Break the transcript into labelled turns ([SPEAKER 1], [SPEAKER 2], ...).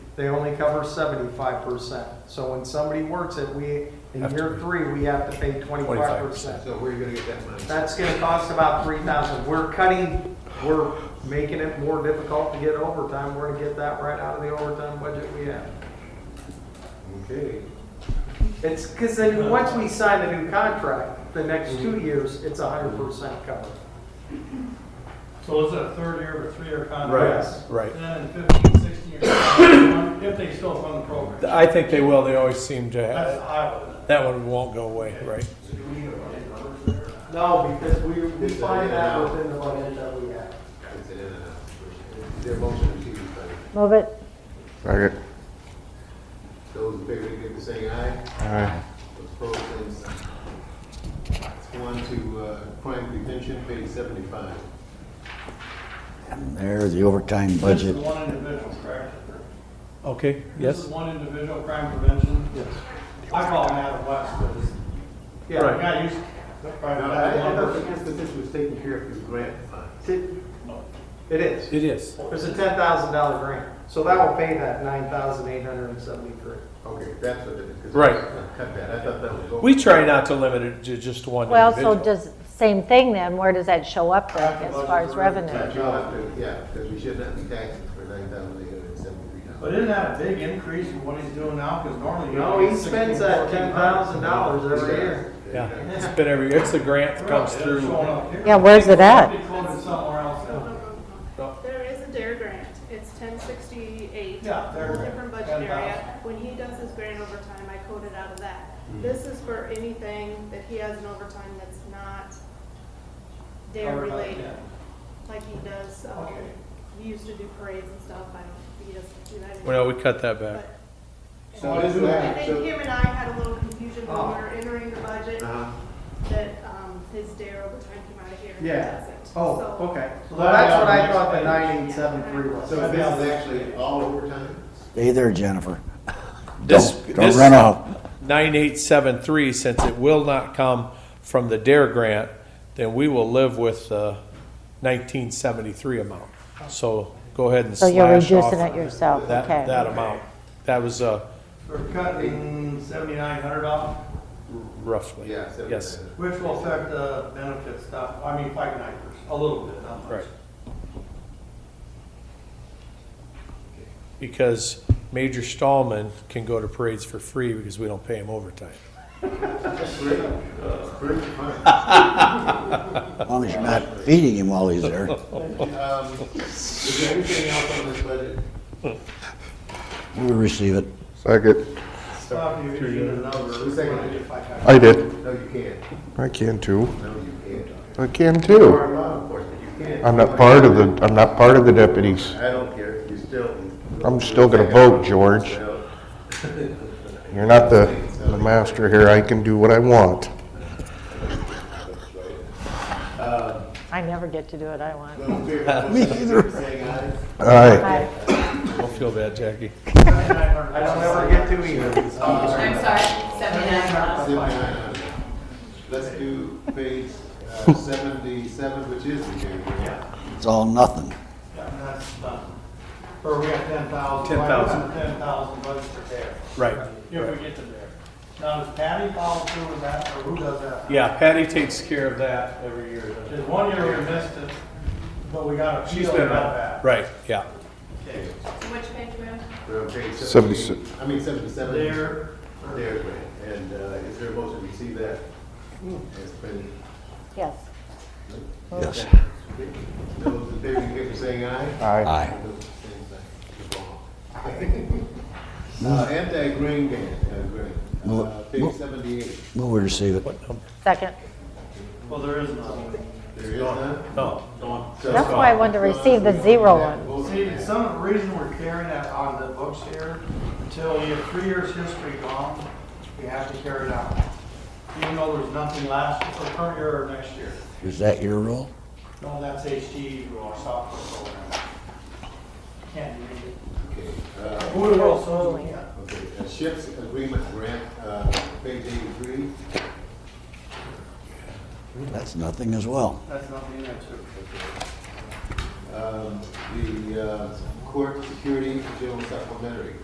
[SPEAKER 1] they only cover seventy-five percent. So when somebody works it, we, in
[SPEAKER 2] Have to
[SPEAKER 1] year
[SPEAKER 2] pay.
[SPEAKER 1] three, we have to pay twenty-five percent.
[SPEAKER 3] So where are you gonna get that money?
[SPEAKER 1] That's gonna cost about three thousand. We're cutting, we're making it more difficult to get overtime. We're gonna get that right out of the overtime budget we have.
[SPEAKER 3] Okay.
[SPEAKER 1] It's, because then, once we sign the new contract, the next two years, it's hundred percent covered.
[SPEAKER 4] So it's a third year of a three-year contract?
[SPEAKER 1] Yes.
[SPEAKER 2] Right.
[SPEAKER 4] Then in 15, 16 years, if they still fund the program.
[SPEAKER 2] I think they will, they always seem to
[SPEAKER 4] That's
[SPEAKER 2] have,
[SPEAKER 4] Iowa.
[SPEAKER 2] that one won't go away, right?
[SPEAKER 1] No, because we, we find that within the budget that we have.
[SPEAKER 3] It's an in and out. Their motion to but
[SPEAKER 5] Move it.
[SPEAKER 6] Second.
[SPEAKER 3] those in favor, indicate by saying aye.
[SPEAKER 6] Aye.
[SPEAKER 3] Those opposed, same sign. Let's go on to uh, crime prevention, page seventy-five.
[SPEAKER 7] And there's the overtime budget.
[SPEAKER 4] This is one individual, correct?
[SPEAKER 2] Okay,
[SPEAKER 4] This
[SPEAKER 2] yes?
[SPEAKER 4] is one individual crime prevention? Yes. I call him Adam West, but it's- the
[SPEAKER 1] Yeah.
[SPEAKER 4] guy used, that's probably
[SPEAKER 3] Now,
[SPEAKER 4] not
[SPEAKER 3] I, I
[SPEAKER 4] that
[SPEAKER 3] thought the
[SPEAKER 4] number.
[SPEAKER 3] institution was taken care of through grant funds.
[SPEAKER 1] It is.
[SPEAKER 2] It is.
[SPEAKER 1] There's a ten thousand dollar grant, so that will pay that nine thousand eight hundred and seventy-three.
[SPEAKER 3] Okay, that's what it is. 'cause
[SPEAKER 2] Right.
[SPEAKER 3] I Cut that, I thought that was over.
[SPEAKER 2] We try not to limit it to just one
[SPEAKER 5] Well, so
[SPEAKER 2] individual.
[SPEAKER 5] does, same thing then, where does that show up then, as far as
[SPEAKER 3] But
[SPEAKER 5] revenue?
[SPEAKER 3] you'll have to, yeah, because we should not be taxing for nine thousand eight hundred and seventy-three
[SPEAKER 4] But
[SPEAKER 3] dollars.
[SPEAKER 4] isn't that a big increase from what he's doing now? Because normally.
[SPEAKER 1] No, he spends that ten thousand dollars every year.
[SPEAKER 2] Yeah, it's been every, it's the grant that comes through.
[SPEAKER 5] Yeah, where's it at?
[SPEAKER 4] It's quoted somewhere else.
[SPEAKER 8] There is a DARE grant, it's ten sixty-eight.
[SPEAKER 4] Yeah, there.
[SPEAKER 8] Different budget area, when he does his grant overtime, I code it out of that. This is for anything that he has in overtime that's not DARE
[SPEAKER 4] Covered by
[SPEAKER 8] related,
[SPEAKER 4] that.
[SPEAKER 8] like he does, um,
[SPEAKER 4] Okay.
[SPEAKER 8] he used to do parades and stuff, I don't, he doesn't do that anymore.
[SPEAKER 2] Well, we cut that back.
[SPEAKER 8] But-
[SPEAKER 3] So this is,
[SPEAKER 8] I
[SPEAKER 3] act-
[SPEAKER 8] think
[SPEAKER 3] so,
[SPEAKER 8] him and I had a little confusion when
[SPEAKER 1] Oh.
[SPEAKER 8] we were entering the budget,
[SPEAKER 3] uh,
[SPEAKER 8] that, um, his DARE overtime came out of here and he
[SPEAKER 1] Yeah.
[SPEAKER 8] doesn't. So-
[SPEAKER 1] Oh, okay. Well, that's what I thought the nine eight seven three was.
[SPEAKER 3] so this is actually all overtime?
[SPEAKER 7] Stay there, Jennifer.
[SPEAKER 2] This,
[SPEAKER 7] Don't- Don't
[SPEAKER 2] this
[SPEAKER 7] run off.
[SPEAKER 2] 9873, since it will not come from the DARE grant, then we will live with the 1973 amount. So go ahead and
[SPEAKER 5] So
[SPEAKER 2] slash
[SPEAKER 5] you're
[SPEAKER 2] off
[SPEAKER 5] reducing it
[SPEAKER 2] that,
[SPEAKER 5] yourself, okay.
[SPEAKER 2] that amount. That was uh,
[SPEAKER 4] We're cutting seventy-nine hundred off,
[SPEAKER 2] roughly.
[SPEAKER 3] Yeah,
[SPEAKER 2] Yes,
[SPEAKER 3] seventy-nine.
[SPEAKER 4] which will affect the benefit stuff, I mean, five niners, a little bit, not much.
[SPEAKER 2] right. Because Major Stallman can go to parades for free because we don't pay him overtime.
[SPEAKER 3] Great, great fun.
[SPEAKER 7] As long as you're not feeding him while he's there.
[SPEAKER 3] Um, Is there anything else on this budget?
[SPEAKER 7] We'll receive it.
[SPEAKER 6] Second.
[SPEAKER 4] Stop you using another.
[SPEAKER 3] Who's second?
[SPEAKER 6] I did.
[SPEAKER 3] No, you can't.
[SPEAKER 6] I can too.
[SPEAKER 3] No, you can't.
[SPEAKER 6] I can
[SPEAKER 3] You
[SPEAKER 6] too.
[SPEAKER 3] are law enforcement, you can't.
[SPEAKER 6] I'm not part of the, I'm not part of the deputies.
[SPEAKER 3] I don't care, you're still.
[SPEAKER 6] I'm still gonna vote, George. You're not the, the master here. I can do what I want.
[SPEAKER 5] I never get to do what I want.
[SPEAKER 3] Me either. Saying aye.
[SPEAKER 6] Aye.
[SPEAKER 5] Hi.
[SPEAKER 2] Don't feel bad, Jackie.
[SPEAKER 1] I don't ever get to either.
[SPEAKER 9] I'm sorry, 79.
[SPEAKER 3] Seventy-nine hundred. Let's do page uh, seventy-seven, which is the new one.
[SPEAKER 7] It's all nothing.
[SPEAKER 4] Yeah, and that's done. Or we have ten thousand.
[SPEAKER 2] 10,000.
[SPEAKER 4] Ten thousand bucks for there,
[SPEAKER 2] Right.
[SPEAKER 4] if we get to there. Now, does Patty follow through with that, or who does that?
[SPEAKER 2] Yeah, Patty takes care of that every year. doesn't
[SPEAKER 4] There's one year we missed it, but we got a
[SPEAKER 2] she? She's
[SPEAKER 4] feel
[SPEAKER 2] been
[SPEAKER 4] about
[SPEAKER 2] around.
[SPEAKER 4] that.
[SPEAKER 2] Right, yeah.
[SPEAKER 9] Which page we on?
[SPEAKER 3] We're on page
[SPEAKER 6] Seventy-six.
[SPEAKER 3] seventy-eight. I mean, seventy-seven.
[SPEAKER 4] There,
[SPEAKER 3] There, Grant. And uh, is there a motion to see that? It's been
[SPEAKER 5] Yes.
[SPEAKER 7] Yes.
[SPEAKER 3] Those in favor, indicate by saying aye.
[SPEAKER 6] Aye.
[SPEAKER 7] Aye.
[SPEAKER 3] Uh, anti-grain ban, uh, grain.
[SPEAKER 7] Move
[SPEAKER 3] uh,
[SPEAKER 7] it.
[SPEAKER 3] page
[SPEAKER 7] Move.
[SPEAKER 3] seventy-eight,
[SPEAKER 7] We'll receive it.
[SPEAKER 2] What number?
[SPEAKER 5] Second.
[SPEAKER 4] well, there is none.
[SPEAKER 3] there is none?
[SPEAKER 2] No.
[SPEAKER 3] So-
[SPEAKER 5] That's why I wanted to receive the zero one.
[SPEAKER 3] Vote.
[SPEAKER 4] See, some reason we're carrying that on the books here, until we have three years' history gone, we have to carry it out. Even though there's nothing last, for current year or next year.
[SPEAKER 7] Is that your rule?
[SPEAKER 4] No, that's HDE rule, our software program. Can't read it.
[SPEAKER 3] Okay, uh,
[SPEAKER 4] Who else knows we can't?
[SPEAKER 3] okay, uh, ships agreement grant, uh, page eighty-three,
[SPEAKER 7] That's nothing as well.
[SPEAKER 4] That's nothing in there too.
[SPEAKER 3] um, the, uh, court security, general supplementary.